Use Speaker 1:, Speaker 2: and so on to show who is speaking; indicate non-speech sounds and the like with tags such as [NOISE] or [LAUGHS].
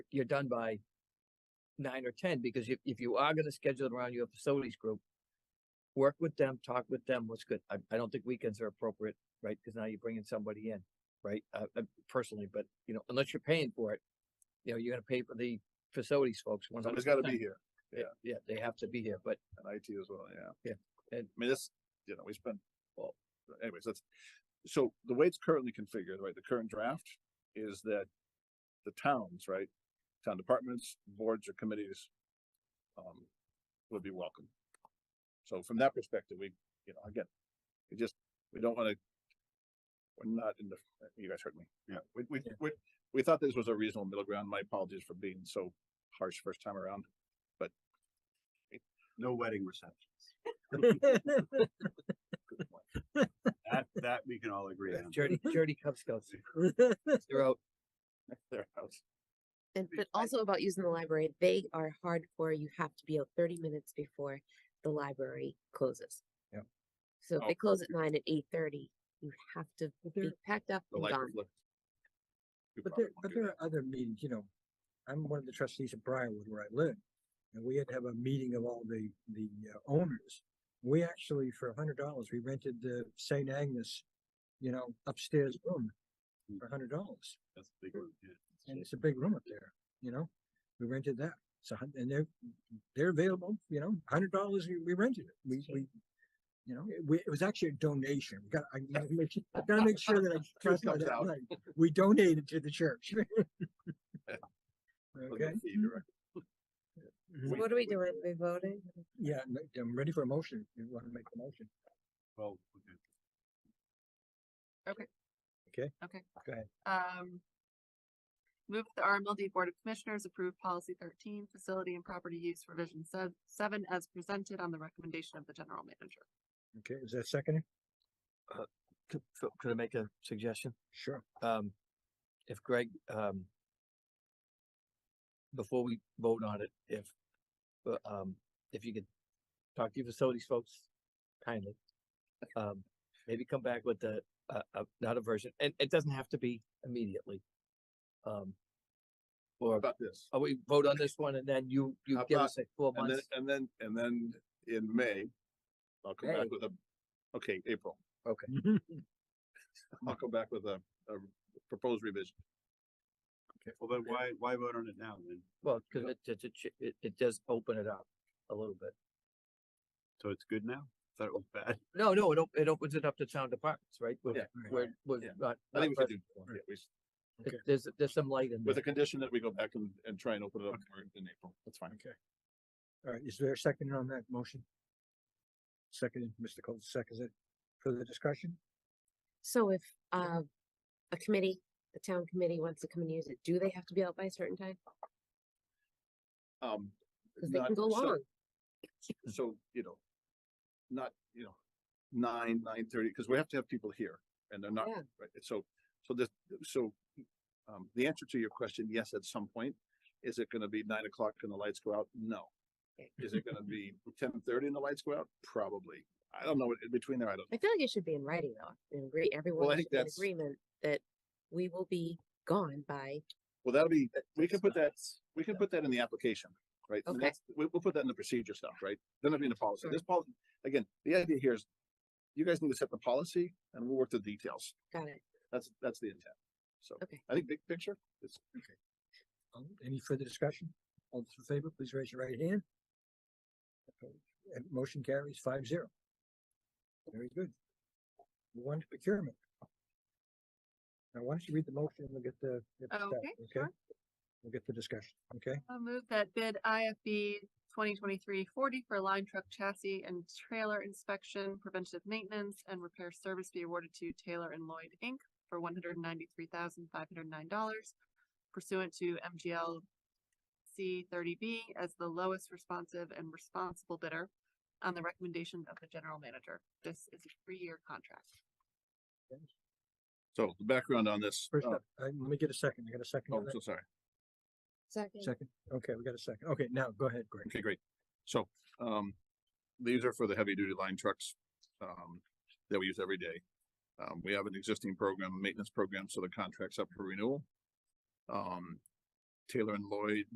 Speaker 1: you're done by nine or ten, because if, if you are gonna schedule it around your facilities group, work with them, talk with them, what's good. I, I don't think weekends are appropriate, right? Cause now you're bringing somebody in, right? Uh, uh, personally, but you know, unless you're paying for it, you know, you're gonna pay for the facilities folks one hundred
Speaker 2: Somebody's
Speaker 1: percent.
Speaker 2: gotta be here
Speaker 1: Yeah, they have to be here, but
Speaker 2: and IT as well, yeah.
Speaker 1: Yeah, and-
Speaker 2: I mean, this, you know, we spend, well, anyways, that's, so the way it's currently configured, right, the current draft is that the towns, right, town departments, boards or committees, um, would be welcome. So from that perspective, we, you know, again, we just, we don't wanna, we're not in the, you guys heard me. Yeah. We, we,
Speaker 1: Yeah.
Speaker 2: we, we thought this was a reasonable middle ground. My apologies for being so harsh first time around.
Speaker 3: No
Speaker 2: [LAUGHS]
Speaker 3: wedding receptions. That, that we can all agree
Speaker 2: [LAUGHS]
Speaker 3: on.
Speaker 1: Dirty, dirty Cub Scouts. They're out.
Speaker 2: Their house.
Speaker 4: And
Speaker 3: Be-
Speaker 4: but
Speaker 3: I-
Speaker 4: also about using the library, they are hardcore. You have to be out thirty minutes before the library closes.
Speaker 1: Yep.
Speaker 4: So if
Speaker 2: Oh.
Speaker 4: they close at nine at eight thirty, you have to
Speaker 5: But
Speaker 4: be
Speaker 5: there,
Speaker 4: packed up
Speaker 2: the
Speaker 4: and
Speaker 2: light
Speaker 4: gone.
Speaker 2: reflect. You
Speaker 5: but
Speaker 2: probably
Speaker 5: there,
Speaker 2: won't
Speaker 5: but
Speaker 2: do
Speaker 5: there
Speaker 2: that.
Speaker 5: are other meetings, you know, I'm one of the trustees of Briarwood where I live. And we had to have a meeting of all the, the uh, owners. We actually, for a hundred dollars, we rented the St. Agnes, you know, upstairs room
Speaker 3: Mm.
Speaker 5: for a hundred dollars.
Speaker 3: That's a big one. yeah.
Speaker 5: And it's a big room up there, you know, we rented that. So, and they're, they're available, you know, a hundred dollars, we, we rented it. We, we, you know, it, we, it was actually a donation. We got, I gotta make, su- I gotta make
Speaker 2: [LAUGHS]
Speaker 5: sure that I.
Speaker 2: Truth
Speaker 5: clarify
Speaker 2: comes
Speaker 5: that
Speaker 2: out.
Speaker 5: right. We donated to the church. [LAUGHS]
Speaker 2: Look at
Speaker 5: Okay, Mm-hmm.
Speaker 2: the direct- [LAUGHS]
Speaker 5: So
Speaker 4: What are we doing? We voting?
Speaker 5: yeah, I'm re- I'm ready for a motion. You want to make a motion?
Speaker 3: Well, okay.
Speaker 6: Um. Move that the RMLD Board of Commissioners approve policy thirteen, facility and property use revision se- seven as presented on the recommendation of the general manager.
Speaker 5: Okay, is that second?
Speaker 1: Could, Phil, could I make a suggestion?
Speaker 5: Sure.
Speaker 1: Um, if Greg, um, before we vote on it, if, uh, um, if you could talk to your facilities folks kindly. Um, maybe come back with the, uh, uh, not a version, and it doesn't have to be immediately. Um,
Speaker 2: How
Speaker 1: or,
Speaker 2: About this,
Speaker 1: oh, we vote on this one and then you, you
Speaker 2: How
Speaker 1: give
Speaker 2: about-
Speaker 1: us like four
Speaker 2: and then,
Speaker 1: months.
Speaker 2: and then, and then in May, I'll come
Speaker 1: May.
Speaker 2: back with a, okay, April,
Speaker 5: [LAUGHS]
Speaker 2: I'll come back with a, a proposed revision.
Speaker 3: Well, then why, why vote on it now then?
Speaker 1: Well, cause it, it, it, ch- it, it does open it up a little bit.
Speaker 3: So it's good now? Thought it was bad.
Speaker 1: [LAUGHS] No, no, it, op- it opens it up to town departments, right? We're-
Speaker 5: [LAUGHS]
Speaker 2: Yeah.
Speaker 1: We're, we're
Speaker 2: Yeah.
Speaker 1: not.
Speaker 2: I
Speaker 1: not
Speaker 2: think we
Speaker 1: pres-
Speaker 2: could do, yeah, we, s-
Speaker 1: It- There's, there's some light in
Speaker 2: with the
Speaker 1: there.
Speaker 2: condition that we go back and, and try and open it up for in April, that's fine.
Speaker 5: Okay. All right, is there a second on that motion? Second, Mr. Coles, seconds it. Further discussion?
Speaker 4: So if uh a committee, the town committee wants to come and use it, do they have to be out by a certain time?
Speaker 2: Um.
Speaker 4: Cause they
Speaker 2: not-
Speaker 4: can go
Speaker 2: so-
Speaker 4: long.
Speaker 2: So, you know, not, you know, nine, nine thirty, because we have to have people here and they're not,
Speaker 4: Yeah.
Speaker 2: right, so, so this, so. Um, the answer to your question, yes, at some point, is it gonna be nine o'clock and the lights go out? No. Is it gonna be ten thirty and the lights go out? Probably. I don't know, what- in between there, I don't,
Speaker 4: I feel like it should be in writing though, and agree, everyone
Speaker 2: think
Speaker 4: should be in
Speaker 2: that's-
Speaker 4: agreement that we will be gone by,
Speaker 2: well, that'll be, we can
Speaker 1: That's
Speaker 2: put
Speaker 1: not-
Speaker 2: that, we can put that in the application, right? And
Speaker 4: Okay.
Speaker 2: that's- We, we'll put that in the procedure stuff, right? Then it'll be in the policy.
Speaker 4: Sure.
Speaker 2: This policy, again, the idea here is you guys need to set the policy and we'll work the details.
Speaker 4: got it,
Speaker 2: That's, that's the intent. So
Speaker 4: okay.
Speaker 2: I think big picture is
Speaker 5: Um, Any further discussion? All those in favor, please raise your right hand. Opposed? And motion carries five zero. Very good. One to procurement. Now, why don't you read the motion and we'll get the. get the stuff,
Speaker 6: Okay, sure.
Speaker 5: We'll get the discussion, okay?
Speaker 6: I'll move that bid IFB 2023-40 for line truck chassis and trailer inspection, preventative maintenance and repair service be awarded to Taylor and Lloyd Inc. for one hundred and ninety-three thousand five hundred and nine dollars pursuant to MGL C thirty B as the lowest responsive and responsible bidder on the recommendation of the general manager. This is a three-year contract.
Speaker 2: so the background on this.
Speaker 5: First
Speaker 2: uh,
Speaker 5: up, I, let me get a second, I got a second.
Speaker 2: Oh,
Speaker 5: on that?
Speaker 2: so sorry.
Speaker 4: Second.
Speaker 5: Second, okay, we got a second, okay, now, go ahead, Greg.
Speaker 2: Okay, great. So, um, these are for the heavy duty line trucks, um, that we use every day. Um, we have an existing program, a maintenance program, so the contract's up for renewal. Um, Taylor and Lloyd